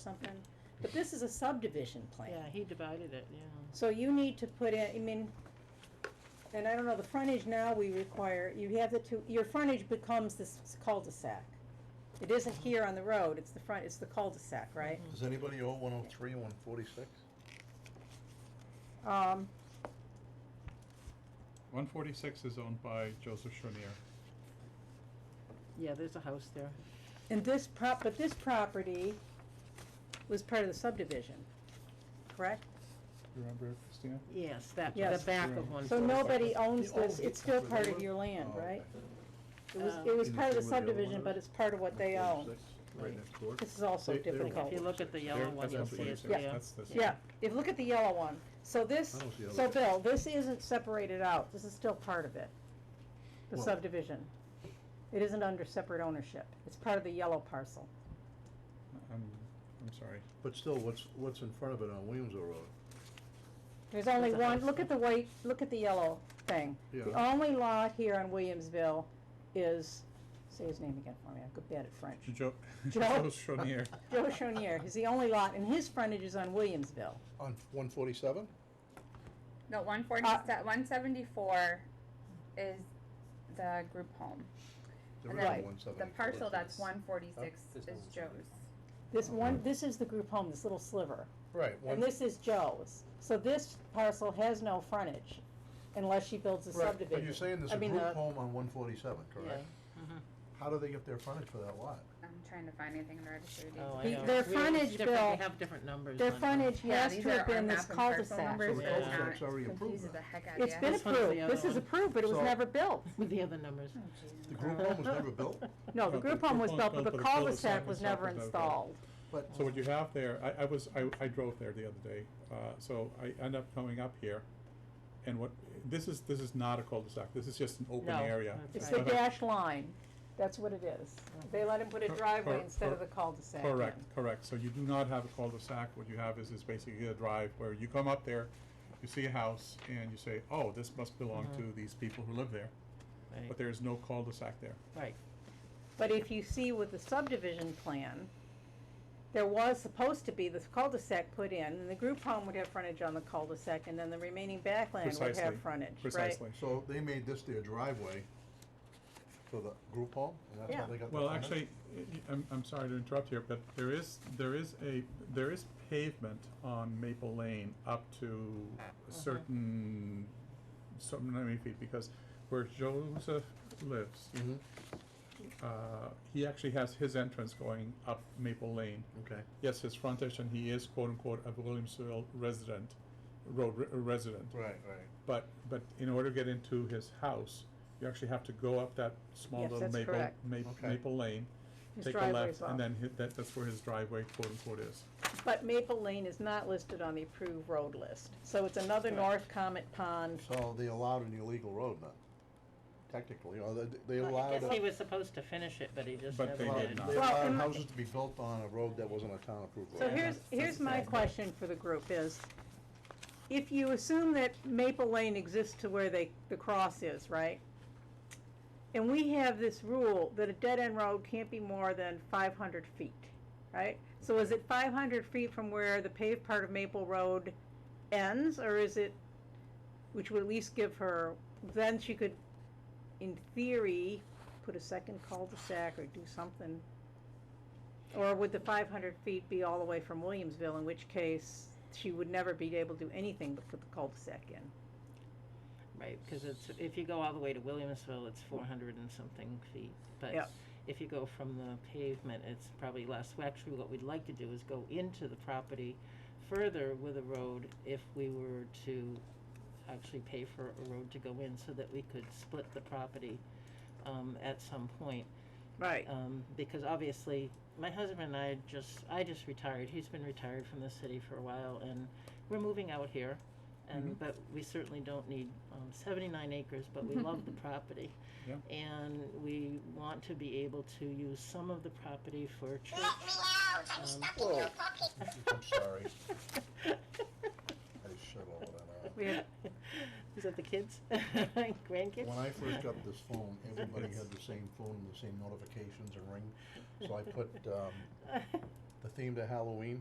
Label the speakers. Speaker 1: something, but this is a subdivision plan.
Speaker 2: Yeah, he divided it, yeah.
Speaker 1: So you need to put in, I mean, and I don't know, the frontage now we require, you have the two, your frontage becomes this cul-de-sac. It isn't here on the road, it's the front, it's the cul-de-sac, right?
Speaker 3: Does anybody owe one oh three, one forty-six?
Speaker 1: Um,
Speaker 4: One forty-six is owned by Joseph Chenier.
Speaker 2: Yeah, there's a house there.
Speaker 1: and this prop, but this property was part of the subdivision, correct?
Speaker 4: You remember, Christina?
Speaker 2: Yes, that, the
Speaker 1: Yes.
Speaker 2: back of one.
Speaker 1: So nobody owns
Speaker 3: They own
Speaker 1: this,
Speaker 3: it.
Speaker 1: it's still part of your land,
Speaker 3: Oh,
Speaker 1: right? It
Speaker 2: okay.
Speaker 1: was,
Speaker 2: Um,
Speaker 1: it was
Speaker 3: Isn't
Speaker 1: part of the
Speaker 3: it where the other one
Speaker 1: subdivision, but
Speaker 3: is?
Speaker 1: it's part of what they own.
Speaker 3: 146, Right next door.
Speaker 1: This is also
Speaker 3: They- they don't
Speaker 1: difficult.
Speaker 2: If you look at the yellow
Speaker 4: There-
Speaker 2: one, you'll
Speaker 4: that's
Speaker 2: see
Speaker 4: what you
Speaker 2: it's
Speaker 4: said,
Speaker 2: there.
Speaker 4: that's this.
Speaker 1: Yeah, if, look at the yellow one. So this,
Speaker 3: I don't see the
Speaker 1: so
Speaker 3: yellow.
Speaker 1: Bill, this isn't separated out, this is still part of it, the
Speaker 3: Well-
Speaker 1: subdivision. It isn't under separate ownership, it's part of the yellow parcel.
Speaker 4: I'm, I'm sorry.
Speaker 3: But still, what's, what's in front of it on Williamsville Road?
Speaker 1: There's only
Speaker 2: There's a
Speaker 1: one,
Speaker 2: house.
Speaker 1: look at the white, look at the yellow thing. The
Speaker 3: Yeah.
Speaker 1: only lot here on Williamsville is, say his name again for me, I'm good bad at French.
Speaker 4: Joe,
Speaker 1: Joe?
Speaker 4: Joe Chenier.
Speaker 1: Joe Chonier, he's the only lot, and his frontage is on Williamsville.
Speaker 3: On one forty-seven?
Speaker 5: No, one forty,
Speaker 1: Uh,
Speaker 5: one seventy-four is the group home.
Speaker 3: There
Speaker 5: And
Speaker 3: is
Speaker 1: Right.
Speaker 3: no one
Speaker 5: The
Speaker 3: seventy-four.
Speaker 5: parcel that's one forty-six
Speaker 6: Oh,
Speaker 5: is
Speaker 6: there's no one
Speaker 5: Joe's.
Speaker 6: seventy
Speaker 1: This
Speaker 3: Uh-huh.
Speaker 1: one, this is the group home, this little sliver.
Speaker 3: Right,
Speaker 1: And
Speaker 3: one,
Speaker 1: this is Joe's, so this parcel has no frontage unless she builds a
Speaker 3: right,
Speaker 1: subdivision.
Speaker 3: but you're saying there's
Speaker 1: I
Speaker 3: a
Speaker 1: mean,
Speaker 3: group
Speaker 1: the-
Speaker 3: home on one forty-seven, correct?
Speaker 2: Yeah. Mm-hmm.
Speaker 3: How do they get their frontage for that lot?
Speaker 5: I'm trying to find anything in the registry of deeds.
Speaker 2: Oh, I
Speaker 1: The-
Speaker 2: know.
Speaker 1: their
Speaker 2: It's weird, it's
Speaker 1: frontage
Speaker 2: different,
Speaker 1: bill-
Speaker 2: They have different numbers.
Speaker 1: Their
Speaker 2: on them.
Speaker 1: frontage
Speaker 5: Yeah,
Speaker 1: has
Speaker 5: these
Speaker 1: to
Speaker 5: are
Speaker 1: have
Speaker 5: our
Speaker 1: been this
Speaker 5: map and parcel
Speaker 1: cul-de-sac.
Speaker 5: numbers,
Speaker 3: So the
Speaker 5: so it's
Speaker 3: cul-de-sac's
Speaker 5: not-
Speaker 3: already approved
Speaker 5: confuses
Speaker 3: then.
Speaker 5: the heck out of
Speaker 1: It's
Speaker 5: ya.
Speaker 1: been
Speaker 2: This one's the
Speaker 1: approved, this
Speaker 2: other
Speaker 1: is
Speaker 2: one.
Speaker 1: approved, but it was
Speaker 3: So-
Speaker 1: never built.
Speaker 2: With the other numbers.
Speaker 5: Oh, Jesus.
Speaker 3: The group home was never built,
Speaker 1: No, the
Speaker 4: But the
Speaker 1: group home was
Speaker 4: group
Speaker 1: built,
Speaker 4: home
Speaker 1: but the
Speaker 4: built, but the
Speaker 1: cul-de-sac
Speaker 4: cul-de-sac
Speaker 1: was
Speaker 4: was not
Speaker 1: never
Speaker 4: built.
Speaker 1: installed.
Speaker 3: but,
Speaker 4: So what you have there, I, I was, I, I drove there the other day, uh, so I end up coming up here. And what, this is, this is not a cul-de-sac, this is just an open
Speaker 2: No,
Speaker 4: area.
Speaker 2: that's
Speaker 1: It's the
Speaker 2: Right.
Speaker 4: But I-
Speaker 1: dash line, that's what it is. They let him put a
Speaker 4: Cor-
Speaker 1: driveway
Speaker 4: cor-
Speaker 1: instead of the
Speaker 4: cor-
Speaker 1: cul-de-sac. in.
Speaker 4: Correct, correct. So you do not have a cul-de-sac. What you have is, is basically a drive where you come up there, you see a house, and you say, oh, this must belong
Speaker 2: Mhm.
Speaker 4: to these people who live there.
Speaker 2: Right,
Speaker 4: But there is no cul-de-sac there.
Speaker 2: right.
Speaker 1: But if you see with the subdivision plan, there was supposed to be the cul-de-sac put in, and the group home would have frontage on the cul-de-sac, and then the remaining backland would
Speaker 4: Precisely,
Speaker 1: have frontage, right?
Speaker 4: Precisely.
Speaker 3: so they made this their driveway for the group home, and that's
Speaker 1: Yeah.
Speaker 3: how they got the frontage?
Speaker 4: Well, actually, y- y- I'm, I'm sorry to interrupt here, but there is, there is a, there is pavement on Maple Lane up to a
Speaker 1: Mm-hmm.
Speaker 4: certain, so many feet, because where Joseph lives,
Speaker 3: Mhm,
Speaker 4: uh, he actually has his entrance going up Maple Lane.
Speaker 3: okay,
Speaker 4: Yes, his frontage, and he is quote-unquote a Williamsville resident, road re- resident.
Speaker 3: right, right.
Speaker 4: But, but in order to get into his house, you actually have to go up that small
Speaker 1: Yes,
Speaker 4: little
Speaker 1: that's
Speaker 4: maple,
Speaker 1: correct.
Speaker 4: ma-
Speaker 3: Okay.
Speaker 4: maple lane,
Speaker 1: His
Speaker 4: take a
Speaker 1: driveway
Speaker 4: left,
Speaker 1: is off.
Speaker 4: and then hit, that, that's where his driveway quote-unquote is.
Speaker 1: But Maple Lane is not listed on the approved road list, so it's another North Comet Pond.
Speaker 3: So they allowed an illegal road now, technically, or they, they
Speaker 2: Well, I
Speaker 3: allowed.
Speaker 2: guess
Speaker 3: a-
Speaker 2: he was supposed to finish it, but he just
Speaker 4: But
Speaker 2: never
Speaker 4: they
Speaker 3: Well,
Speaker 4: did
Speaker 2: did.
Speaker 4: not.
Speaker 3: They
Speaker 1: Well,
Speaker 3: allowed
Speaker 1: and-
Speaker 3: houses to be built on a road that wasn't a town approved road.
Speaker 1: So here's, here's my question for the group is, if you assume that Maple Lane exists to where they, the cross is, right? And we have this rule that a dead-end road can't be more than five hundred feet, right? So is it five hundred feet from where the paved part of Maple Road ends, or is it, which would at least give her, then she could, in theory, put a second cul-de-sac or do something? Or would the five hundred feet be all the way from Williamsville, in which case she would never be able to do anything but put the cul-de-sac in?
Speaker 2: Right, because it's, if you go all the way to Williamsville, it's four hundred and something feet.
Speaker 1: Yeah.
Speaker 2: But if you go from the pavement, it's probably less. Well, Actually, what we'd like to do is go into the property further with a road if we were to actually pay for a road to go in so that we could split the property um, at some point.
Speaker 1: Right.
Speaker 2: Um, because obviously, my husband and I just, I just retired. He's been retired from the city for a while, and we're moving out here. And
Speaker 3: Mm-hmm.
Speaker 4: Mhm.
Speaker 2: but we certainly don't need um, 79 acres, but we love the property,
Speaker 4: Yeah.
Speaker 2: and we want to be able to use some of the property for church. Um,
Speaker 7: Let me out! I'm stuck in your pocket.
Speaker 3: I'm sorry. I shut all of that out.
Speaker 1: We have,
Speaker 2: Is that the kids, grandkids?
Speaker 3: When I first got this phone, everybody had the same phone and the same notifications and ring, so I put, um, the theme to Halloween